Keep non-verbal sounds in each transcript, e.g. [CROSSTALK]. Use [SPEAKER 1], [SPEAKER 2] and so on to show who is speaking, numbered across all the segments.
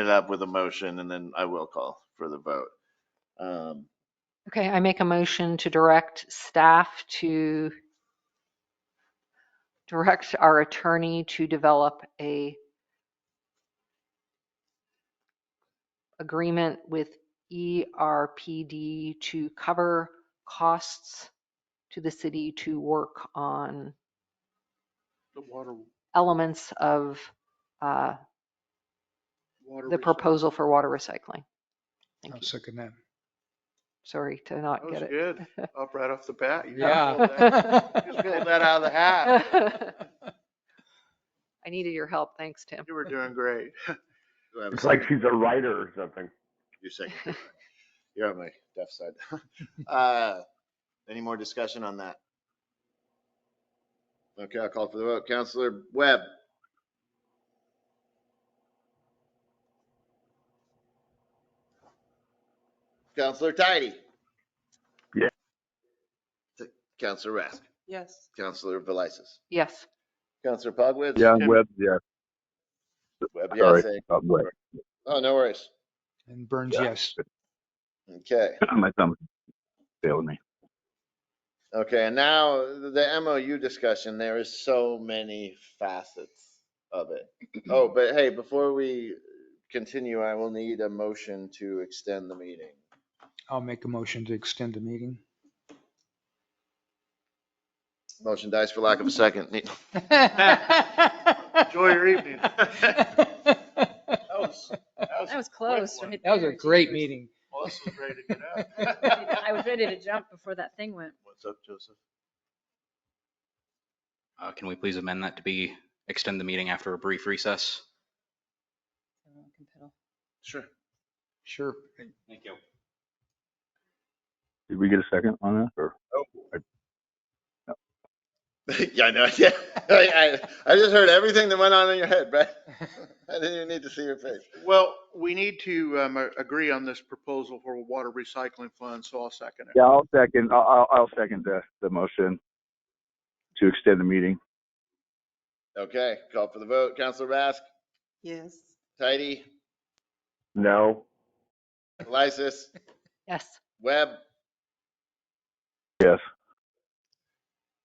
[SPEAKER 1] it up with a motion and then I will call for the vote. Um,
[SPEAKER 2] Okay, I make a motion to direct staff to direct our attorney to develop a agreement with E ERPD to cover costs to the city to work on
[SPEAKER 3] The water,
[SPEAKER 2] elements of uh,
[SPEAKER 3] water.
[SPEAKER 2] the
[SPEAKER 3] recyc-
[SPEAKER 2] proposal for water recycling. Thank
[SPEAKER 4] I'll
[SPEAKER 2] you.
[SPEAKER 4] second that.
[SPEAKER 2] Sorry to not
[SPEAKER 3] That was
[SPEAKER 2] get it.
[SPEAKER 3] good, up right off the bat. You just
[SPEAKER 4] Yeah.
[SPEAKER 3] pulled that- you Just pulled that out of the
[SPEAKER 2] [LAUGHS]
[SPEAKER 3] hat.
[SPEAKER 2] I needed your help. Thanks, Tim.
[SPEAKER 3] You were doing great.
[SPEAKER 1] do I have a
[SPEAKER 5] It's like
[SPEAKER 1] second?
[SPEAKER 5] she's a writer or something.
[SPEAKER 1] You're second. You're on my deaf side. [LAUGHS] Uh, Any more discussion on that? Okay, I'll call for the vote. Counselor Webb, Counselor Tidy.
[SPEAKER 5] Yeah.
[SPEAKER 1] Counselor Rask,
[SPEAKER 6] Yes.
[SPEAKER 1] Counselor Velisis,
[SPEAKER 2] Yes.
[SPEAKER 1] Counselor Pogwitz.
[SPEAKER 5] Yeah,
[SPEAKER 3] Tim.
[SPEAKER 5] Webb, yeah,
[SPEAKER 1] Webb,
[SPEAKER 5] sorry,
[SPEAKER 1] yes. eh?
[SPEAKER 5] not Webb.
[SPEAKER 1] Oh, no worries.
[SPEAKER 4] And Burns,
[SPEAKER 5] Yeah.
[SPEAKER 4] yes.
[SPEAKER 1] Okay.
[SPEAKER 5] My thumb failed me.
[SPEAKER 1] Okay, and now the MOU discussion, there is so many facets of it.
[SPEAKER 3] [CLEARS THROAT]
[SPEAKER 1] Oh, but hey, before we continue, I will need a motion to extend the meeting.
[SPEAKER 4] I'll make a motion to extend the
[SPEAKER 3] [LAUGHS]
[SPEAKER 4] meeting.
[SPEAKER 1] Motion dies for lack of a second. Ne-
[SPEAKER 3] Enjoy your evening.
[SPEAKER 4] That
[SPEAKER 3] That was,
[SPEAKER 6] That was close. right
[SPEAKER 4] was
[SPEAKER 6] there.
[SPEAKER 4] a great
[SPEAKER 3] [LAUGHS]
[SPEAKER 4] meeting.
[SPEAKER 3] Melissa's ready to get out.
[SPEAKER 6] [LAUGHS] I was ready to jump before that thing went.
[SPEAKER 3] What's up, Joseph?
[SPEAKER 7] Uh, Can we please amend that to be, extend the meeting after a brief recess?
[SPEAKER 3] Sure.
[SPEAKER 4] Sure.
[SPEAKER 7] Thank you.
[SPEAKER 5] Did we get a second on that or?
[SPEAKER 1] [LAUGHS] Yeah, I know, yeah. I, I I just heard everything that went on in your head,
[SPEAKER 3] [LAUGHS]
[SPEAKER 1] Brad. I didn't even need to see your face.
[SPEAKER 3] Well, we need to um, a- agree on this proposal for a water recycling fund, so I'll second it.
[SPEAKER 5] Yeah, I'll second, I'll, I'll- I'll second the, the motion to extend the meeting.
[SPEAKER 1] Okay, call for the vote. Counselor Rask,
[SPEAKER 6] Yes.
[SPEAKER 1] Tidy,
[SPEAKER 5] No.
[SPEAKER 3] [LAUGHS]
[SPEAKER 1] Lysis,
[SPEAKER 2] Yes.
[SPEAKER 1] Webb,
[SPEAKER 5] Yes.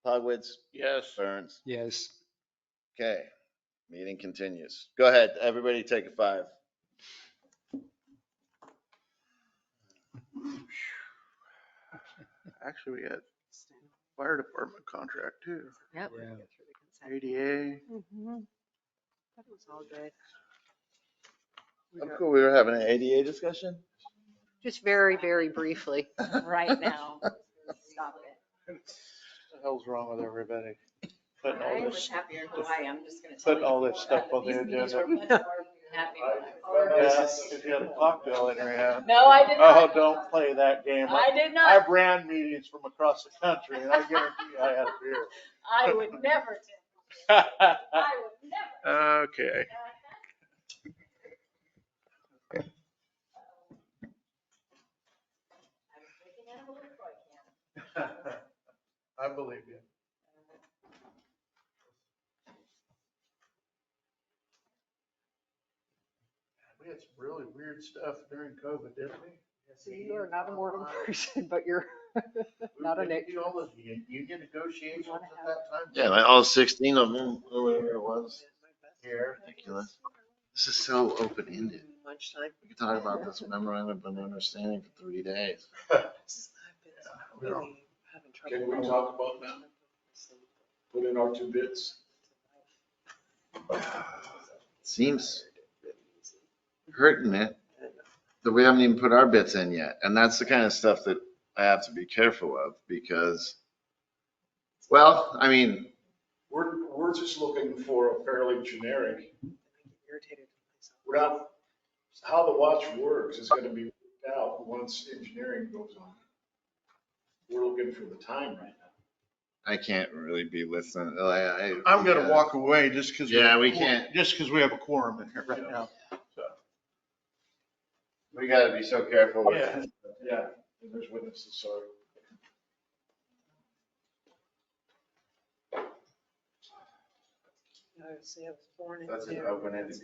[SPEAKER 1] Pogwitz,
[SPEAKER 3] Yes.
[SPEAKER 1] Burns.
[SPEAKER 4] Yes.
[SPEAKER 1] Okay, meeting continues. Go ahead, everybody take a five.
[SPEAKER 3] Actually, we had fire department contract too.
[SPEAKER 2] Yep.
[SPEAKER 4] Yeah.
[SPEAKER 3] ADA.
[SPEAKER 6] Mm-hmm. That was all good.
[SPEAKER 1] I'm cool, we were having an ADA discussion?
[SPEAKER 2] Just very, very briefly.
[SPEAKER 3] [LAUGHS]
[SPEAKER 6] Right now. Stop it.
[SPEAKER 3] What the hell's wrong with everybody? Putting all this,
[SPEAKER 6] happier in
[SPEAKER 3] Hawaii,
[SPEAKER 6] I'm just gonna
[SPEAKER 3] putting all this stuff on the agenda. [LAUGHS] Yeah,
[SPEAKER 6] Happy.
[SPEAKER 3] If you had a cocktail in your hand.
[SPEAKER 6] No, I did
[SPEAKER 3] Oh,
[SPEAKER 6] not.
[SPEAKER 3] don't play that game.
[SPEAKER 6] I did not.
[SPEAKER 3] I've ran meetings from across the country and I guarantee you I had a
[SPEAKER 6] I would never.
[SPEAKER 3] [LAUGHS] beer.
[SPEAKER 6] I would never.
[SPEAKER 3] [LAUGHS] Okay. I believe you. We had some really weird stuff during COVID, didn't we?
[SPEAKER 2] You are not a moral person, but you're, [LAUGHS] not an
[SPEAKER 3] You all those u- union negotiations at that time.
[SPEAKER 1] Yeah, like all sixteen of them, or whatever it was.
[SPEAKER 3] Here.
[SPEAKER 1] Ridiculous. This is so open-ended.
[SPEAKER 2] Mm,
[SPEAKER 1] We could talk about this memorandum of understanding for three days.
[SPEAKER 6] uh,
[SPEAKER 3] we were- Can we talk about that? Put in our two bits.
[SPEAKER 1] Seems hurting it, that we haven't even put our bits in yet. And that's the kind of stuff that I have to be careful of because, well, I mean,
[SPEAKER 8] We're, we're just looking for a fairly generic, we're not, how the watch works is gonna be worked out once engineering goes on. We're looking for the time right now.
[SPEAKER 1] I can't really be listening. like, I-
[SPEAKER 3] I'm gonna walk away just because.
[SPEAKER 1] Yeah, we can't.
[SPEAKER 3] Just because we have a quorum in here right now.
[SPEAKER 1] We gotta be so careful with
[SPEAKER 8] Yeah, yeah, and there's witnesses, sorry.
[SPEAKER 9] I would say I was born into.
[SPEAKER 6] [LAUGHS] That's an open-ended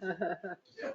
[SPEAKER 6] conversation.